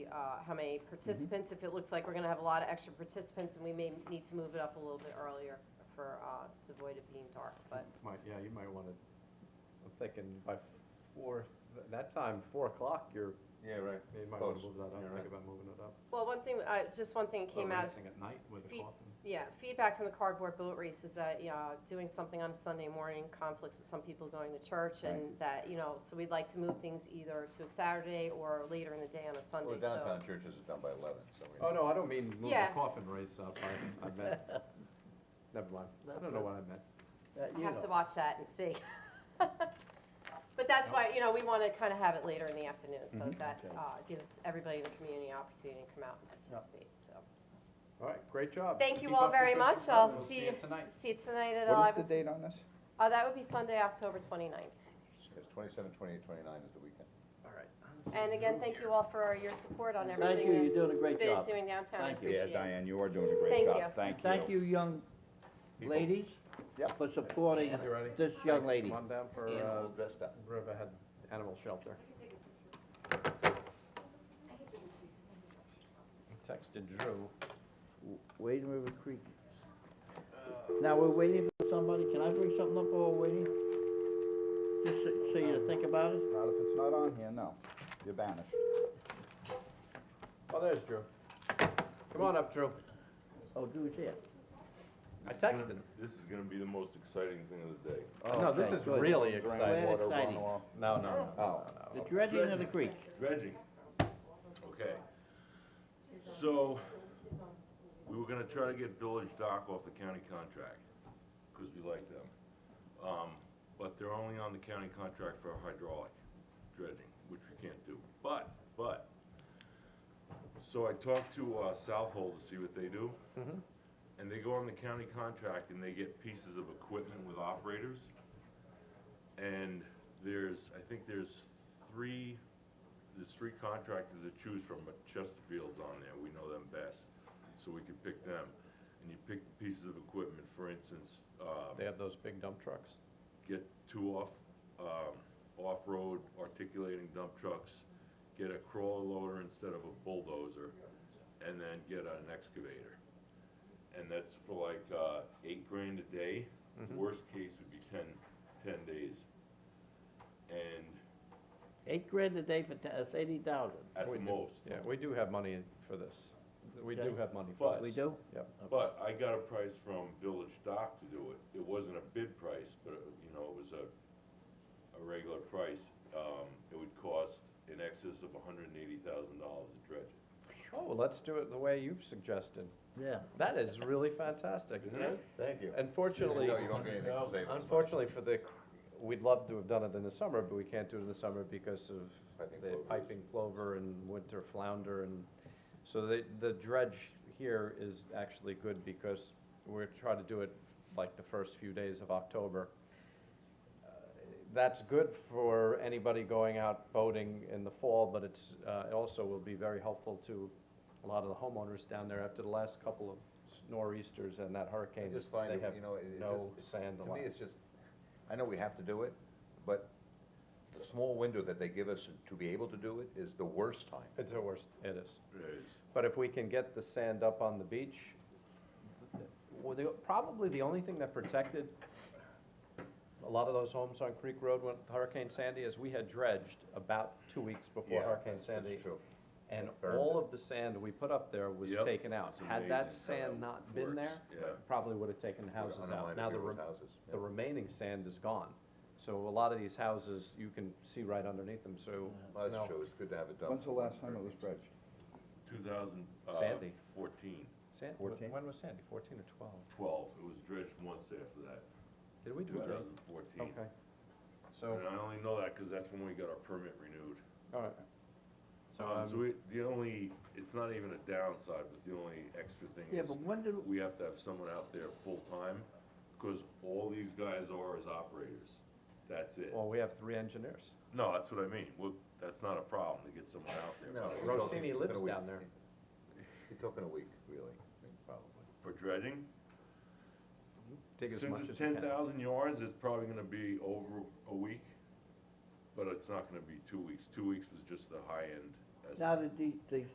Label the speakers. Speaker 1: uh, how many participants. If it looks like we're gonna have a lot of extra participants, and we may need to move it up a little bit earlier for, uh, to avoid it being dark, but
Speaker 2: Might, yeah, you might wanna, I'm thinking by four, th- that time, four o'clock, you're,
Speaker 3: Yeah, right.
Speaker 2: you might
Speaker 3: Close.
Speaker 2: wanna move that up,
Speaker 3: Yeah, right.
Speaker 2: think about moving it up.
Speaker 1: Well, one thing, uh, just one thing came
Speaker 2: Or
Speaker 1: out,
Speaker 2: racing at night with a
Speaker 1: feet-
Speaker 2: coffin.
Speaker 1: yeah, feedback from the cardboard boat race is that, yeah, doing something on a Sunday morning conflicts with some people going to church and that, you know, so we'd like to move things either to a Saturday or later in the day on a Sunday,
Speaker 3: Well,
Speaker 1: so.
Speaker 3: downtown churches is done by eleven, so we.
Speaker 2: Oh, no, I don't mean move the
Speaker 1: Yeah.
Speaker 2: coffin race up, I, I meant, never mind, I don't know what I meant.
Speaker 1: I have to watch that and see. But that's why, you know, we wanna kinda have it later in the afternoon, so
Speaker 4: Mm-hmm.
Speaker 1: that,
Speaker 2: Okay.
Speaker 1: uh, gives everybody in the community an opportunity to come out and participate, so.
Speaker 2: All right, great job.
Speaker 1: Thank you
Speaker 2: Keep
Speaker 1: all
Speaker 2: up the
Speaker 1: very
Speaker 2: good
Speaker 1: much.
Speaker 2: stuff.
Speaker 1: I'll
Speaker 2: We'll
Speaker 1: see
Speaker 2: you
Speaker 1: you-
Speaker 2: tonight.
Speaker 1: See you tonight at
Speaker 5: What is
Speaker 1: eleven,
Speaker 5: the date on this?
Speaker 1: uh, that would be Sunday, October twenty-ninth.
Speaker 3: Because twenty-seven, twenty-eight, twenty-nine is the weekend.
Speaker 2: All right.
Speaker 1: And again, thank you all for your support on
Speaker 4: Thank you,
Speaker 1: everything
Speaker 4: you're
Speaker 1: that
Speaker 4: doing a great
Speaker 1: Bit is
Speaker 4: job.
Speaker 1: doing downtown, I
Speaker 4: Thank you. Yeah,
Speaker 1: appreciate it.
Speaker 3: you are doing a
Speaker 1: Thank you.
Speaker 4: Thank you, young
Speaker 3: People.
Speaker 4: ladies,
Speaker 5: Yep.
Speaker 4: for supporting
Speaker 2: You ready?
Speaker 4: this young
Speaker 2: Thanks.
Speaker 4: lady.
Speaker 2: Come on down for,
Speaker 3: We're
Speaker 2: uh,
Speaker 3: all dressed up.
Speaker 2: Riverhead Animal Shelter. I Texted Drew.
Speaker 4: Wade River Creek. Now, we're waiting for somebody, can I bring something up while we're waiting? Just so- so you to think about it?
Speaker 5: Not if it's not on here, no. You're banished.
Speaker 2: Oh, there's Drew. Come on up, Drew.
Speaker 4: Oh, do it there.
Speaker 2: I texted him.
Speaker 6: This is gonna be the most exciting thing of the day. Oh.
Speaker 2: No, this
Speaker 4: Okay,
Speaker 2: is
Speaker 4: good.
Speaker 2: really
Speaker 4: Glad
Speaker 2: exciting.
Speaker 4: it's exciting.
Speaker 2: No, no, no, no,
Speaker 5: Oh.
Speaker 2: no.
Speaker 4: The dredging of the creek.
Speaker 6: Dredging. Okay. So, we were gonna try to get Village Dock off the county contract, because we like them. Um, but they're only on the county contract for hydraulic dredging, which we can't do. But, but, so I talked to, uh, Southhold to see what they do. And they go on the county contract and they get pieces of equipment with operators. And there's, I think there's three, there's three contractors to choose from, but Chesterfield's on there, we know them best, so we can pick them. And you pick the pieces of equipment, for instance, uh,
Speaker 2: They have those big dump trucks.
Speaker 6: get two off, um, off-road articulating dump trucks, get a crawler loader instead of a bulldozer, and then get an excavator. And that's for like, uh, eight grand a day,
Speaker 2: Mm-hmm.
Speaker 6: worst case would be ten, ten days. And
Speaker 4: Eight grand a day for, ta- that's eighty thousand.
Speaker 6: at
Speaker 2: We
Speaker 6: the
Speaker 2: do.
Speaker 6: most,
Speaker 2: Yeah, we do have money for this. We do
Speaker 4: Okay.
Speaker 2: have money for this.
Speaker 6: But-
Speaker 4: We do?
Speaker 2: Yep.
Speaker 6: but I got a price from Village Dock to do it, it wasn't a bid price, but, uh, you know, it was a, a regular price. Um, it would cost in excess of hundred and eighty thousand dollars to dredge it.
Speaker 2: Oh, well, let's do it the way you've suggested.
Speaker 4: Yeah.
Speaker 2: That is really fantastic.
Speaker 6: Isn't it?
Speaker 3: Thank you.
Speaker 2: Unfortunately,
Speaker 3: No, you don't get anything to save us money.
Speaker 2: unfortunately for the, we'd love to have done it in the summer, but we can't do it in the summer because of
Speaker 3: Piping
Speaker 2: the
Speaker 3: plovers.
Speaker 2: piping plover and winter flounder and, so the, the dredge here is actually good because we're trying to do it like the first few days of October. Uh, That's good for anybody going out boating in the fall, but it's, uh, it also will be very helpful to a lot of the homeowners down there after the last couple of nor'easters and that hurricane.
Speaker 3: I just find,
Speaker 2: they
Speaker 3: it,
Speaker 2: have
Speaker 3: you know, it- it's just.
Speaker 2: no sand
Speaker 3: To
Speaker 2: allowed.
Speaker 3: me, it's just, I know we have to do it, but the small window that they give us to be able to do it is the worst time.
Speaker 2: It's the worst, it is.
Speaker 6: It is.
Speaker 2: But if we can get the sand up on the beach, well, the, probably the only thing that protected a lot of those homes on Creek Road when Hurricane Sandy is we had dredged about two weeks before
Speaker 3: Yeah,
Speaker 2: Hurricane
Speaker 3: that's- that's
Speaker 2: Sandy.
Speaker 3: true.
Speaker 2: And
Speaker 3: Burned
Speaker 2: all of the sand we put up there was
Speaker 6: Yep,
Speaker 2: taken out.
Speaker 6: it's
Speaker 2: Had that
Speaker 6: amazing how
Speaker 2: sand
Speaker 6: that
Speaker 2: not been
Speaker 6: works,
Speaker 2: there,
Speaker 6: yeah.
Speaker 2: probably would have taken the houses out.
Speaker 3: undermined
Speaker 2: Now the,
Speaker 3: people's
Speaker 2: re-
Speaker 3: houses,
Speaker 2: the remaining sand is gone. So a lot of these houses, you can see right underneath them, so.
Speaker 3: Well,
Speaker 2: no.
Speaker 3: That's true, it's good to have it done.
Speaker 5: When's the last time it was dredged?
Speaker 6: 2014,
Speaker 2: Sandy.
Speaker 6: 14,
Speaker 2: Sand,
Speaker 5: Fourteen?
Speaker 2: when was Sandy, fourteen or twelve?
Speaker 6: 12, it was dredged once after that,
Speaker 2: Did we do that?
Speaker 6: 2014.
Speaker 2: Okay. So,
Speaker 6: And I only know that because that's when we got our permit renewed.
Speaker 2: all right. So,
Speaker 6: Um, So
Speaker 2: um,
Speaker 6: we, the only, it's not even a downside, but the only extra thing
Speaker 4: Yeah,
Speaker 6: is
Speaker 4: but when do,
Speaker 6: we have to have someone out there full-time because all these guys are is operators. That's it.
Speaker 2: well, we have three engineers.
Speaker 6: No, that's what I mean. Well, that's not a problem to get someone out there.
Speaker 3: No, it's
Speaker 2: Rossini
Speaker 3: talking-
Speaker 2: lives
Speaker 3: talking a week.
Speaker 2: down there.
Speaker 3: You're talking a week, really, I mean, probably.
Speaker 6: For dredging,
Speaker 2: Dig as
Speaker 6: since
Speaker 2: much as
Speaker 6: it's
Speaker 2: you
Speaker 6: ten
Speaker 2: can.
Speaker 6: thousand yards, it's probably gonna be over a week, but it's not gonna be two weeks. Two weeks was just the high end. estimate.
Speaker 4: now that these, these